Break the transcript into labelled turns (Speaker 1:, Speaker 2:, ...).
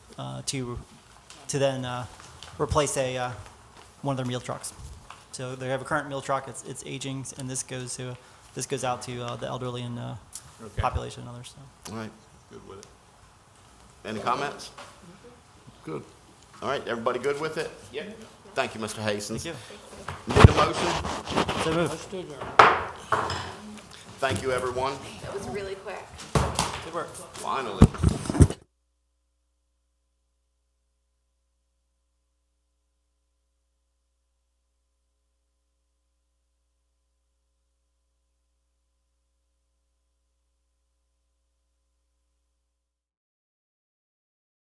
Speaker 1: uh, to, to then uh, replace a, uh, one of their meal trucks. So they have a current meal truck, it's, it's aging, and this goes to, this goes out to uh, the elderly and uh,
Speaker 2: Okay.
Speaker 1: population and others, so.
Speaker 3: All right.
Speaker 2: Good with it.
Speaker 3: Any comments?
Speaker 2: Good.
Speaker 3: All right, everybody good with it? Yeah. Thank you, Mr. Hastings.
Speaker 1: Thank
Speaker 3: Need a motion?
Speaker 1: you. So moved.
Speaker 3: Thank you, everyone.
Speaker 4: That was really quick.
Speaker 1: Good work.
Speaker 3: Finally.